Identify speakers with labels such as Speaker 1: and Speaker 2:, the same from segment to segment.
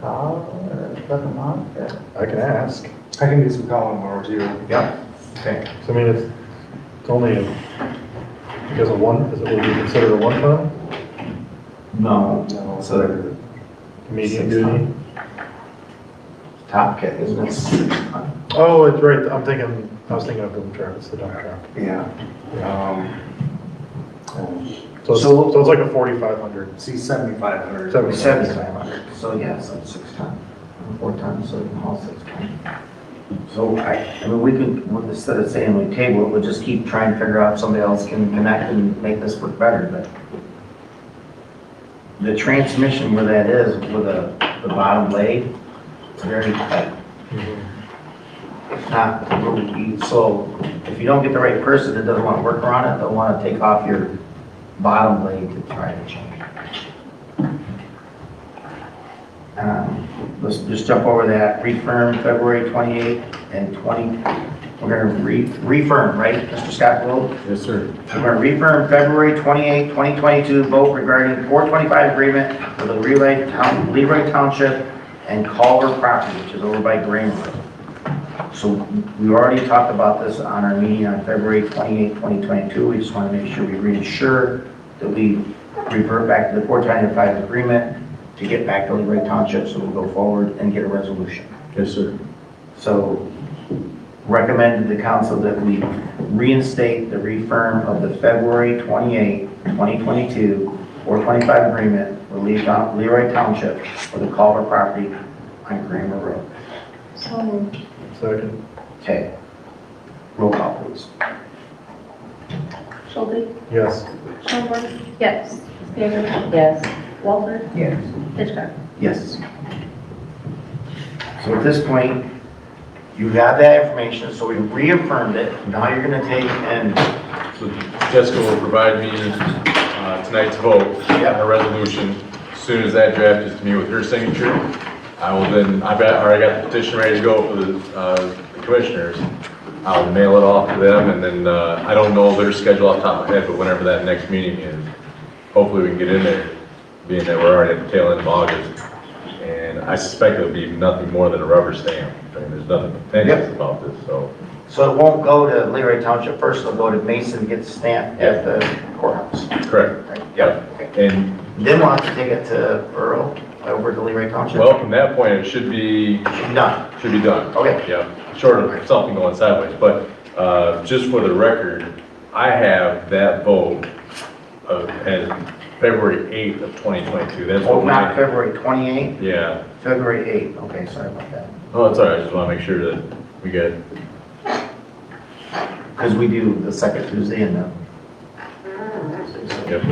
Speaker 1: call or look them up or?
Speaker 2: I can ask.
Speaker 3: I can do some calling tomorrow too.
Speaker 2: Yeah.
Speaker 3: Okay.
Speaker 2: So, I mean, it's, it's only, a- because of one, is it, would be considered a one-time
Speaker 4: No,
Speaker 3: No.
Speaker 4: it's a
Speaker 2: medium
Speaker 4: Six
Speaker 2: duty?
Speaker 4: top kit, isn't it?
Speaker 2: Oh, it's right, I'm thinking, I was thinking of dump truck, it's the dump truck.
Speaker 3: Yeah.
Speaker 2: Yeah.
Speaker 3: Um, um,
Speaker 2: So it's,
Speaker 4: So-
Speaker 2: so it's like a forty-five hundred.
Speaker 3: See, seventy-five hundred.
Speaker 2: Seventy.
Speaker 4: So yeah, so six times, four times, so you can haul six times. So I, I mean, we could, well, instead of saying we table it, we'll just keep trying to figure out if somebody else can connect and make this work better, but the transmission where that is, with the, the bottom blade, it's very tight. If not, you- so if you don't get the right person that doesn't want to work around it, they'll want to take off your bottom blade to try to change. it. Um, Let's just jump over that, refirm February 28th and 20, we're going to re refirm, right, Mr. Scott Will?
Speaker 3: Yes, sir.
Speaker 4: We're going to refirm February 28, 2022 vote regarding 425 agreement for the Relay Town, Leroy Township and Culver property, which is over by Green Road. So we already talked about this on our meeting on February 28, 2022. We just want to make sure we reinsure that we revert back to the 425 agreement to get back to Leroy Township, so we'll go forward and get a resolution.
Speaker 3: Yes, sir.
Speaker 4: So recommended to the council that we reinstate the refirm of the February 28, 2022, 425 agreement with Lee- Leroy Township for the Culver property on Kramer Road.
Speaker 1: So moved.
Speaker 2: Second,
Speaker 4: Okay. Roll call, please.
Speaker 5: Schulte,
Speaker 2: yes.
Speaker 5: Schoenberg. Yes. Bicker,
Speaker 1: Yes.
Speaker 5: Walter,
Speaker 1: Yes.
Speaker 5: Hitchcock.
Speaker 4: Yes. So at this point, you got that information, so we reaffirmed it. Now you're going to take and
Speaker 6: So Jessica will provide me uh, tonight's vote
Speaker 4: Yep.
Speaker 6: on the resolution. As soon as that draft is to me with her signature, I will then, I've got- already got the petition ready to go for the uh, the commissioners. I'll mail it off to them, and then, uh, I don't know their schedule off the top of my head, but whenever that next meeting is, hopefully we can get in there, being that we're already at the tail end of August. And I suspect it'll be nothing more than a rubber stamp, and there's nothing contentious about this, so.
Speaker 4: So it won't go to Leroy Township first, it'll go to Mason, get stamped at the courthouse.
Speaker 6: Correct.
Speaker 4: Yep.
Speaker 6: And
Speaker 4: Then we'll have to take it to Earl, over to Leroy Township?
Speaker 6: Well, from that point, it should be,
Speaker 4: Done,
Speaker 6: should be done.
Speaker 4: okay.
Speaker 6: Yeah, short of something going sideways, but, uh, just for the record, I have that vote of, as February eighth of twenty twenty-two, that's
Speaker 4: Oh,
Speaker 6: what
Speaker 4: not
Speaker 6: my,
Speaker 4: February 28th,
Speaker 6: yeah.
Speaker 4: February 8th, okay, sorry about that.
Speaker 6: Oh, it's all right, I just wanna make sure that we get,
Speaker 4: Because we do the second Tuesday and the...
Speaker 6: yep.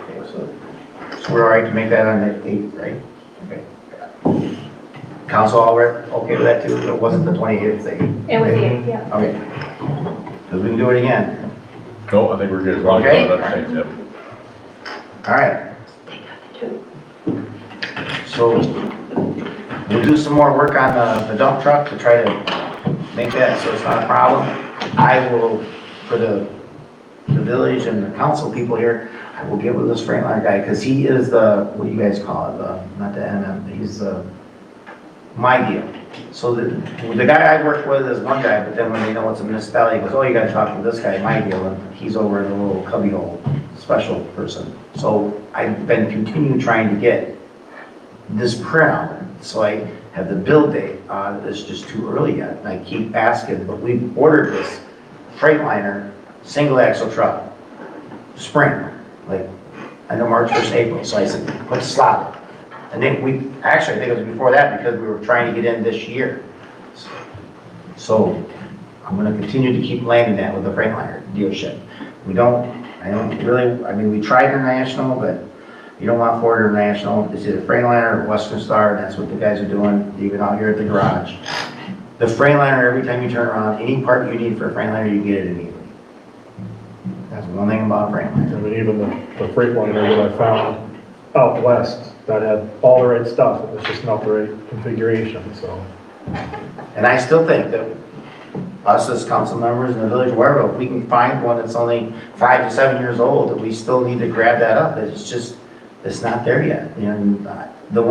Speaker 4: Okay, So so we're all right to make that on the 8th, right? Okay. Council all right, okay with that too? It wasn't the 28th, it's the 8th,
Speaker 5: It was you, yeah.
Speaker 4: okay. Because we can do it again.
Speaker 6: No, I think we're good. as long as
Speaker 4: Okay.
Speaker 6: we're on the same tip.
Speaker 4: All right.
Speaker 5: two.
Speaker 4: So we'll do some more work on the- the dump truck to try to make that so it's not a problem. I will, for the, the village and the council people here, I will get with this Freightliner guy because he is the, what do you guys call it? The- Not the MM, he's the, my deal. So the, the guy I work with is one guy, but then when they know it's a municipality, he goes, oh, you gotta talk to this guy, my deal, and he's over in the little cubbyhole special person. So I've been continuing trying to get this printout, so I have the build date, uh, it's just too early yet, and I keep asking, but we ordered this Freightliner, single axle truck, spring, like, end of March, first April, so I said, let's slot it. And then we, actually, I think it was before that, because we were trying to get in this year. So, I'm gonna continue to keep landing that with the Freightliner dealership. We don't, I don't really, I mean, we tried international, but you don't want Ford International, it's either Freightliner or Western Star, and that's what the guys are doing, even out here at the garage. The Freightliner, every time you turn around, any part you need for a Freightliner, you get it immediately. That's one thing about Freightliner.
Speaker 2: I mean, even the, the freight liner that I found out west, that had all the right stuff, it was just not the right configuration, so.
Speaker 4: And I still think that us as council members in the village, wherever, if we can find one that's only five to seven years old, that we still need to grab that up, it's just, it's not there yet, you know, and, uh, the